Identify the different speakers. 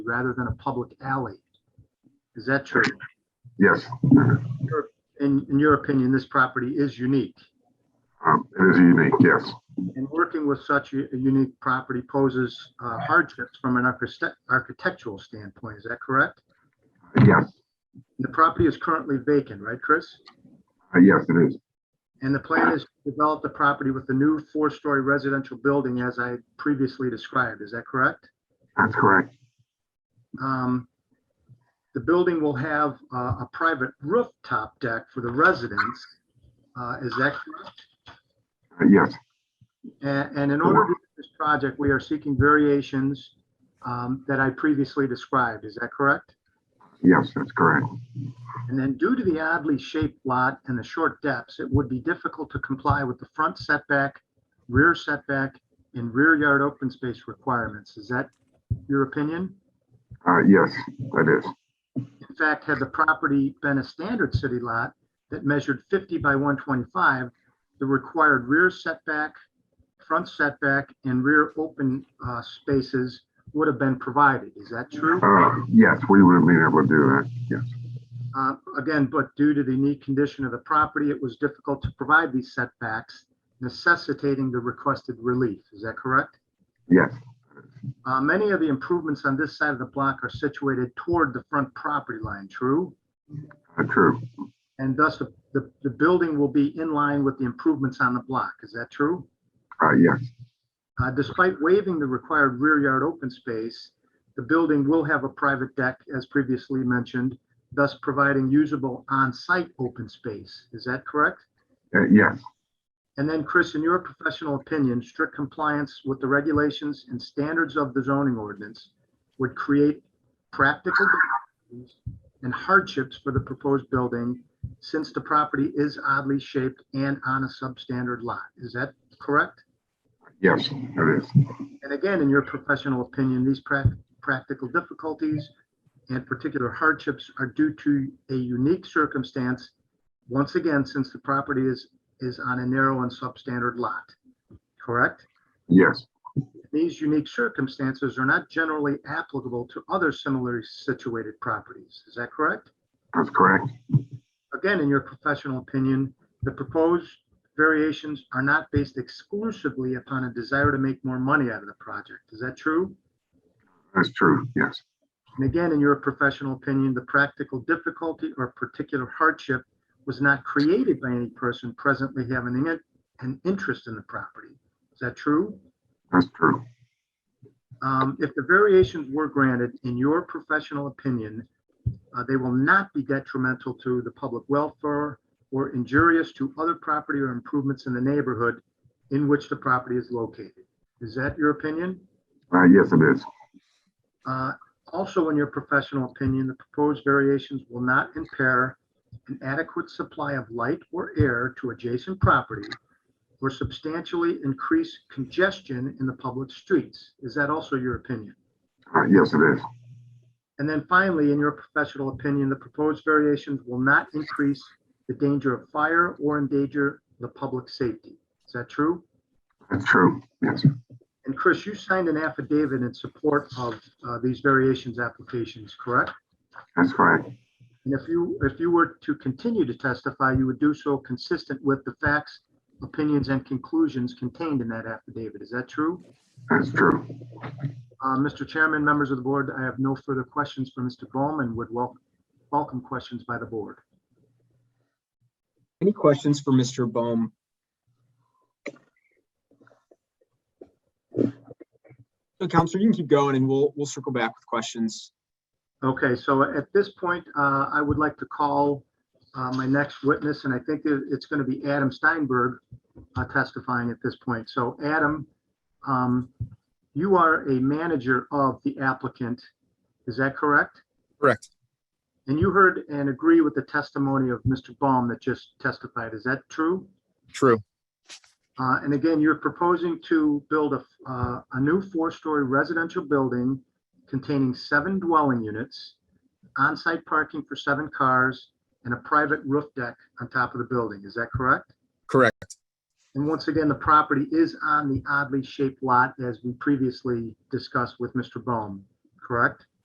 Speaker 1: rather than a public alley. Is that true?
Speaker 2: Yes,
Speaker 1: In, in your opinion, this property is unique,
Speaker 2: um, it is unique, yes.
Speaker 1: and working with such a a unique property poses uh, hardships from an architect- architectural standpoint. Is that correct?
Speaker 2: Uh, Yes,
Speaker 1: The property is currently vacant, right, Chris?
Speaker 2: uh, yes, it is.
Speaker 1: And the plan is to develop the property with a new four-story residential building as I previously described. Is that correct?
Speaker 2: That's correct.
Speaker 1: Um, The building will have uh, a private rooftop deck for the residents. Uh, Is that correct?
Speaker 2: Uh, yes,
Speaker 1: And, and in order to do this project, we are seeking variations um, that I previously described. Is that correct?
Speaker 2: yes, that's correct.
Speaker 1: And then due to the oddly shaped lot and the short depths, it would be difficult to comply with the front setback, rear setback, and rear yard open space requirements. Is that your opinion?
Speaker 2: Uh, yes, that is.
Speaker 1: In fact, had the property been a standard city lot that measured 50 by 125, the required rear setback, front setback, and rear open uh, spaces would have been provided. Is that true?
Speaker 2: Uh, yes, we would have been able to do that. Yes,
Speaker 1: Uh, Again, but due to the unique condition of the property, it was difficult to provide these setbacks, necessitating the requested relief. Is that correct?
Speaker 2: yes,
Speaker 1: Uh, Many of the improvements on this side of the block are situated toward the front property line, true?
Speaker 2: uh, true.
Speaker 1: And thus, the- the, the building will be in line with the improvements on the block. Is that true?
Speaker 2: Uh, yes,
Speaker 1: Uh, Despite waiving the required rear yard open space, the building will have a private deck, as previously mentioned, thus providing usable on-site open space. Is that correct?
Speaker 2: uh, yes,
Speaker 1: And then, Chris, in your professional opinion, strict compliance with the regulations and standards of the zoning ordinance would create practical difficulties and hardships for the proposed building since the property is oddly shaped and on a substandard lot. Is that correct?
Speaker 2: yes, it is.
Speaker 1: And again, in your professional opinion, these prac- practical difficulties and particular hardships are due to a unique circumstance, once again, since the property is, is on a narrow and substandard lot, correct?
Speaker 2: Yes,
Speaker 1: These unique circumstances are not generally applicable to other similarly situated properties. Is that correct?
Speaker 2: that's correct.
Speaker 1: Again, in your professional opinion, the proposed variations are not based exclusively upon a desire to make more money out of the project. Is that true?
Speaker 2: That's true. Yes,
Speaker 1: And again, in your professional opinion, the practical difficulty or particular hardship was not created by any person presently having an, an interest in the property. Is that true?
Speaker 2: that's true.
Speaker 1: Um, if the variations were granted, in your professional opinion, uh, they will not be detrimental to the public welfare or injurious to other property or improvements in the neighborhood in which the property is located. Is that your opinion?
Speaker 2: Uh, yes, it is.
Speaker 1: Uh, Also, in your professional opinion, the proposed variations will not impair an adequate supply of light or air to adjacent property or substantially increase congestion in the public streets. Is that also your opinion?
Speaker 2: Uh, yes, it is.
Speaker 1: And then finally, in your professional opinion, the proposed variations will not increase the danger of fire or endanger the public safety. Is that true?
Speaker 2: That's true. Yes,
Speaker 1: And Chris, you signed an affidavit in support of uh, these variations applications, correct?
Speaker 2: that's correct.
Speaker 1: And if you, if you were to continue to testify, you would do so consistent with the facts, opinions, and conclusions contained in that affidavit. Is that true?
Speaker 2: That's true.
Speaker 1: Uh, Mr. Chairman, members of the board, I have no further questions for Mr. Bowman, would wel- welcome questions by the board.
Speaker 3: Any questions for Mr. Bohm? So Counselor, you can keep going and we'll, we'll circle back with questions.
Speaker 1: Okay, so at this point, uh, I would like to call uh, my next witness, and I think it- it's going to be Adam Steinberg uh, testifying at this point. So Adam, um, you are a manager of the applicant, is that correct?
Speaker 4: Correct.
Speaker 1: And you heard and agree with the testimony of Mr. Baum that just testified. Is that true?
Speaker 4: True.
Speaker 1: Uh, And again, you're proposing to build a, uh, a new four-story residential building containing seven dwelling units, on-site parking for seven cars, and a private roof deck on top of the building. Is that correct?
Speaker 4: Correct.
Speaker 1: And once again, the property is on the oddly shaped lot as we previously discussed with Mr. Bohm, correct?